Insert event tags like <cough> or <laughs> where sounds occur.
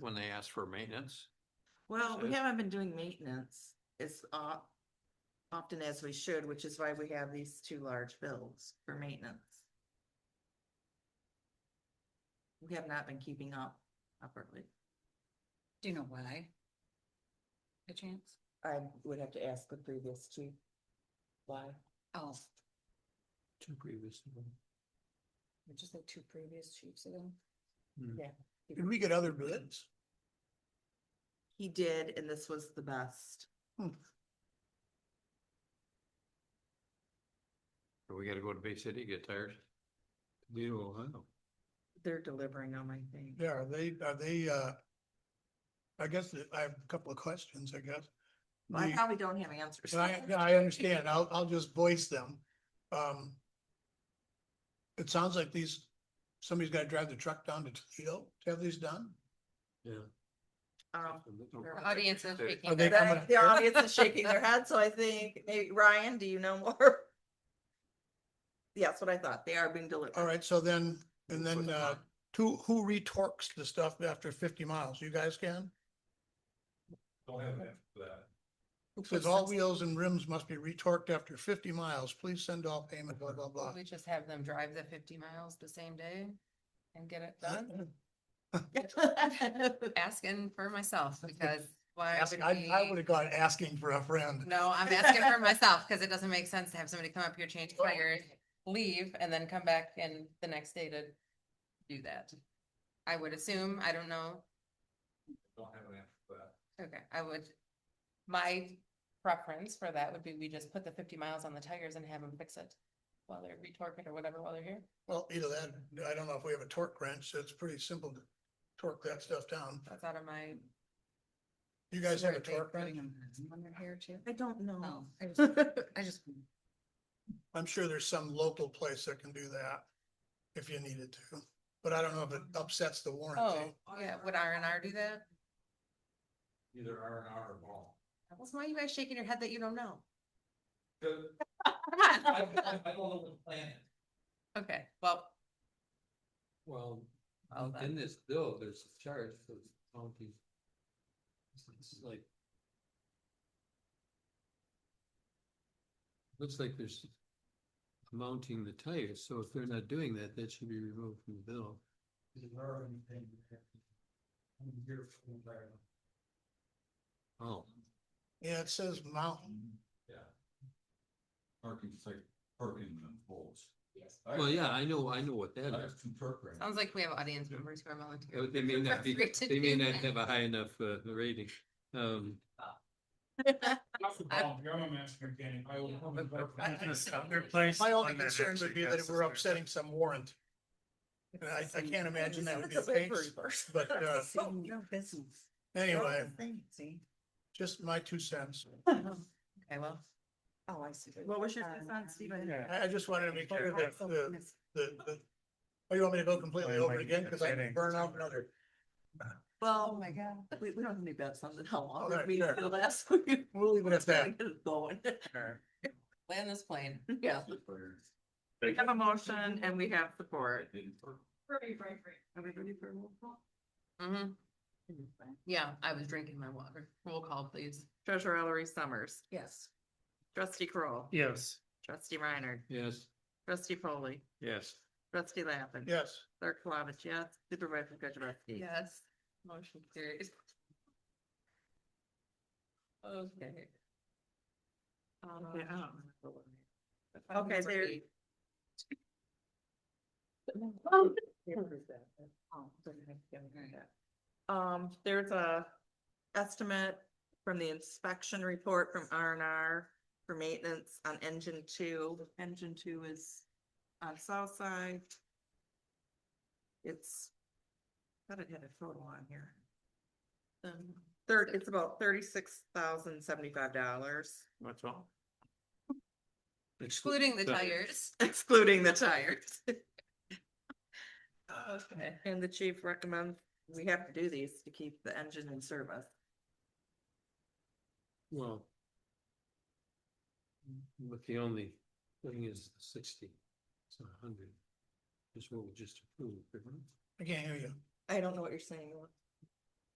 when they ask for maintenance? Well, we Yes. haven't been doing maintenance as o- often as we should, which is why we have these two large bills for maintenance. We have not been keeping up properly. Do you know why? A chance? I would have to ask the previous chief why. Oh, Two previous. just like two previous chiefs ago. Can we get other bids? He did, and this was the best. So we gotta go to Bay City, get tires? Deal, Ohio. They're delivering on my thing. Yeah, are they, are they, uh, I guess that I have a couple of questions, I guess. I The- probably don't have answers. and I, yeah, I understand. I'll, I'll just voice them. Um, it sounds like these, somebody's gotta drive the truck down to Toledo to have these done. Yeah. Um, Audience is They- shaking they their come head. coming The up the here? audience is shaking <laughs> their head, so I think, maybe, Ryan, do you know more? Yeah, that's what I thought. They are being delivered. <laughs> All right, so then, and Put then, them uh, on. who, who retorques the stuff after fifty miles? You guys can? Don't have that for that. It Says all wheels and rims must be retorqued after fifty miles. Please send all payment, blah, blah, blah. We just have them drive the fifty miles the same day and get it done. Asking <laughs> for myself because why Ask- would I, I would we? have gone asking for a friend. <laughs> No, I'm asking for myself because it doesn't make sense to have somebody come up here, change Well- tires, leave and then come back and the next day to do that. I would assume, I don't know. Don't have an answer for that. Okay, I would, my preference for that would be we just put the fifty miles on the tires and have them fix it while they're retorque it or whatever while they're here. Well, either that, I don't know if we have a torque wrench, so it's pretty simple to torque that stuff down. That's out of my, You guys have a Were they torque putting wrench? them On their hair too? I don't know. Oh, I just, I just, I'm sure there's some local place that can do that if you needed to, but I don't know if it upsets the oh, warranty. yeah, would R and R do that? Either R and R or ball. What's why are you guys shaking your head that you don't <laughs> know? I I don't know what the plan is. Okay, well, Well, Well, in- in this bill, there's a charge for the county. It's- It's like. Looks like there's mounting the tires, so if they're not doing that, that should be removed from the bill. Is there anything? that- I'm here for the environment. Oh, Yeah, it says mountain. Yeah. Parking site, parking and holes. Yes. well, yeah, I know, I know what that is. That's two perk rent. sounds like we have audience members who are volunteering. They may not be, Free to they may do not that. have a high enough uh, rating. Um, My only concern would be that it were upsetting some warrant. And I, I can't imagine that would be the case, but, <laughs> uh, Oh, no business. anyway, See? just my two cents. Okay, well, Oh, I see. What was your two cents, Steve? I didn't- I, I just wanted to make Oh, sure that so the, miss- the, the, oh, you want me to go completely over again? Cause I can burn out another. Oh, Well, my God. we, we don't have any bets on it, how long Alright, we've been sure. for the last <laughs> week. We'll leave it at that. Get it Going, land this plane. yeah. We have a motion and we have support. Everybody for a roll call? hmm yeah, I was drinking my water. Roll call, please. Treasurer Ellery Summers, Yes. trustee Kroll, Yes. trustee Reiner, yes, trustee Foley, Yes. trustee Lappin. Yes. Clerk Flavich, yes. Supervisor Kujabaski. Yes. Motion carries. Okay. Um, Okay, I don't Okay, Okay, there- there. <laughs> Um, there's a estimate from the inspection report from R and R for maintenance on engine two. Engine two is on south side. It's, thought it had a photo on here. Um, Third, it's about thirty-six thousand seventy-five dollars, That's all. Excluding the Sorry. tires. <laughs> excluding the tires. Okay. And the chief recommends, we have to do these to keep the engine in service. well. But the only thing is sixty, it's not a hundred. Is what we just approved. right? I can't hear you. I don't know what you're saying.